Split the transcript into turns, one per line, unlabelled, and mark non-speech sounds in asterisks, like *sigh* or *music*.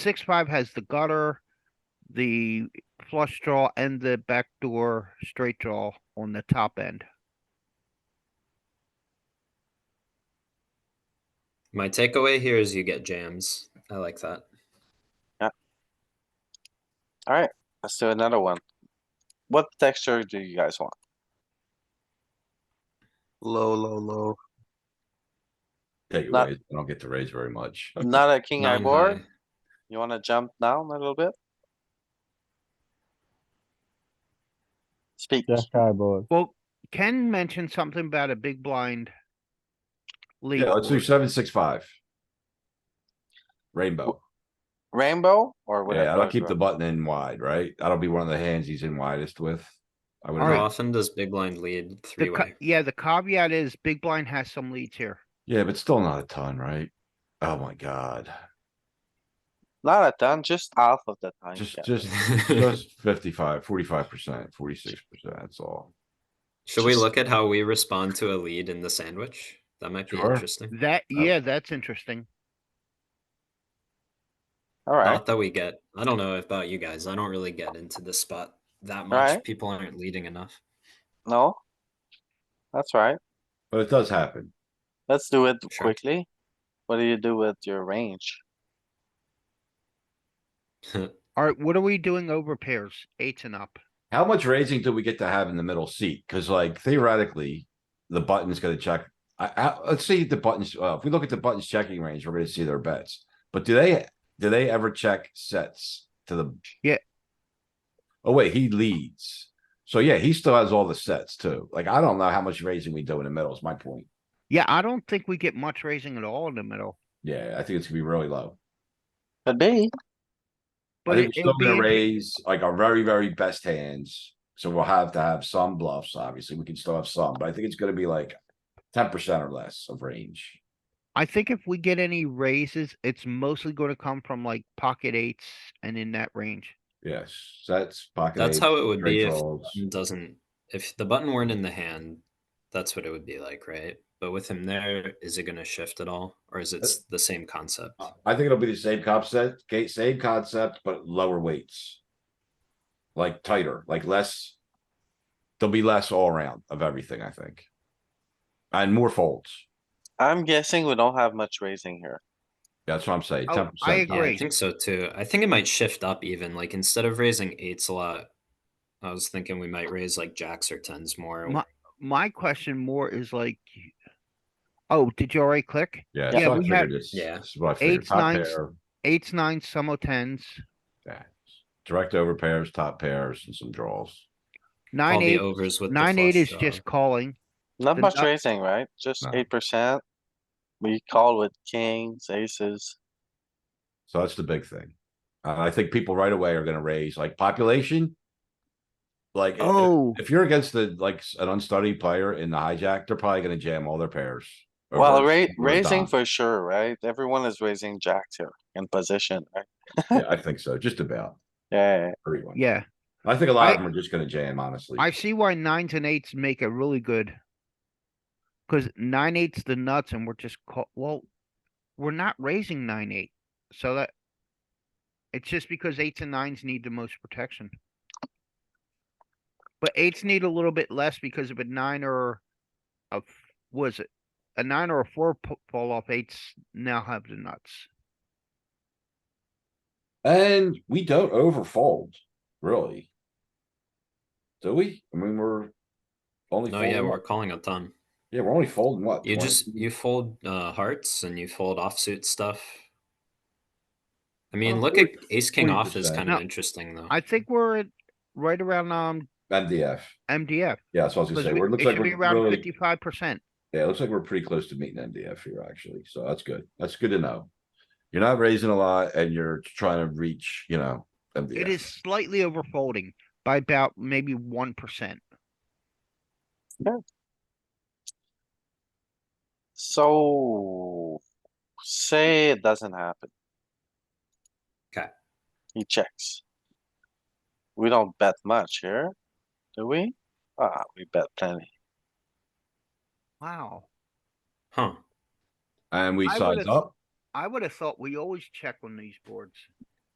six, five has the gutter, the flush draw and the backdoor straight draw on the top end.
My takeaway here is you get jams. I like that.
Alright, let's do another one. What texture do you guys want?
Low, low, low.
Take it
Not-
raise. I don't get to raise very much.
*laughs* Not a king eye
Nine
board?
high.
You wanna jump down a little bit? Speak.
Jack high board.
Well, Ken mentioned something about a big blind. lead
*laughs* Yeah, let's do
board.
seven, six, five. Rainbow.
Rainbow or whatever.
Yeah, I'll keep the
bro.
button in wide, right? That'll be one of the hands he's in widest with. I would,
How
Alright.
imagine.
often does big blind lead
The
three
ca-
way?
yeah, the caveat is big blind has some leads here.
yeah, but still not a ton, right? Oh my god,
Not a ton, just half of the time.
just,
yeah.
just, just fifty-five, forty-five percent, forty-six percent, that's all.
*laughs* Should we
just-
look at how we respond to a lead in the sandwich? That might be
Sure.
interesting.
That, yeah, that's interesting.
Alright,
Not that we get. I don't know about you guys. I don't really get into this spot that much.
Alright.
People aren't leading enough. *laughs*
no? That's right.
But it does happen.
Let's do it
Sure.
quickly. What do you do with your range?
Alright, what are we doing over pairs? Eights and up.
How much raising do we get to have in the middle seat? Cuz like theoretically, the button's gonna check. I, I, let's see the buttons, uh, if we look at the buttons checking range, we're gonna see their bets. But do they, do they ever check sets to the?
Yeah.
Oh wait, he leads. So yeah, he still has all the sets too. Like, I don't know how much raising we do in the middle is my point.
Yeah, I don't think we get much raising at all in the middle.
Yeah, I think it's gonna be really low.
Could be.
I
But
think
it
we're
it'll
still
be,
gonna
inter-
raise like our very, very best hands. So we'll have to have some bluffs, obviously. We can still have some, but I think it's gonna be like ten percent or less of range.
I think if we get any raises, it's mostly gonna come from like pocket eights and in that range.
Yes, sets, pocket.
That's
eight,
how it would
straight
be if the
draws.
button doesn't. If the button weren't in the hand, that's what it would be like, right? But with him there, is it going to shift at all, or is it s- the same concept?
I think it'll be the same concept, ga- same concept, but lower weights. Like tighter, like less. There'll be less all around of everything, I think. And more folds.
I'm guessing we don't have much raising here.
That's what I'm saying.
Oh,
10%.
I
Yeah, I
agree.
think so too. I think it might shift up even. Like instead of raising eights a lot, I was thinking we might raise like jacks or tens more.
My- My question more is like. Oh, did you already click?
Yeah.
Yeah,
that's what I
we had-
figured. It's-
Yeah.
this is what I figured.
Eights,
Top
nines,
pair.
Eights, nines, some of tens,
Yeah, direct over pairs, top pairs, and some draws.
All
nine,
the
eight,
overs with the
nine, eight
flush uh,
is just
draw.
calling.
Not
The
much
nut-
raising, right? Just
No.
eight percent. We call with kings, aces.
So that's the big thing. Uh, I think people right away are gonna raise like population. Like, i- if,
Oh,
if you're against the, like, s- an unstudied player in the hijack, they're probably gonna jam all their pairs. over-
Well, ra-
over
raising
dom.
for sure, right? Everyone is raising jacks here in position, right?
*laughs* Yeah, I think so, just about
Yeah,
everyone.
yeah.
I think a lot
I-
of them are just gonna jam, honestly.
I see why nines and eights make a really good. Cause nine, eight's the nuts and we're just call, well, we're not raising nine, eight, so that. It's just because eights and nines need the most protection. But eights need a little bit less because of a nine or a, f- was it? A nine or a four po- fall off eights now have the nuts.
And we don't overfold, really. Do we? I mean, we're only.
No, yeah,
folding
we're
what?
calling a ton.
Yeah, we're only folding what?
You
20?
just you fold uh, hearts and you fold offsuit stuff. I mean,
Oh,
Well,
look at
forty-
ace king off is
40%.
kind of
No,
interesting though.
I think we're at right around, um,
MDF.
MDF.
Yeah, that's what I was gonna
because
say.
we-
We're,
It
looks like
should be
we're
around
really,
fifty-five percent.
yeah, it looks like we're pretty close to meeting MDF here, actually. So that's good. That's good to know. You're not raising a lot and you're trying to reach, you know,
It is
MDF.
slightly over folding by about maybe one percent.
so say it doesn't happen.
'Kay.
He checks. We don't bet much here, do we? Ah, we bet plenty.
Wow.
Huh?
And we
I
size
would've-
up.
I would have thought we always check on these boards.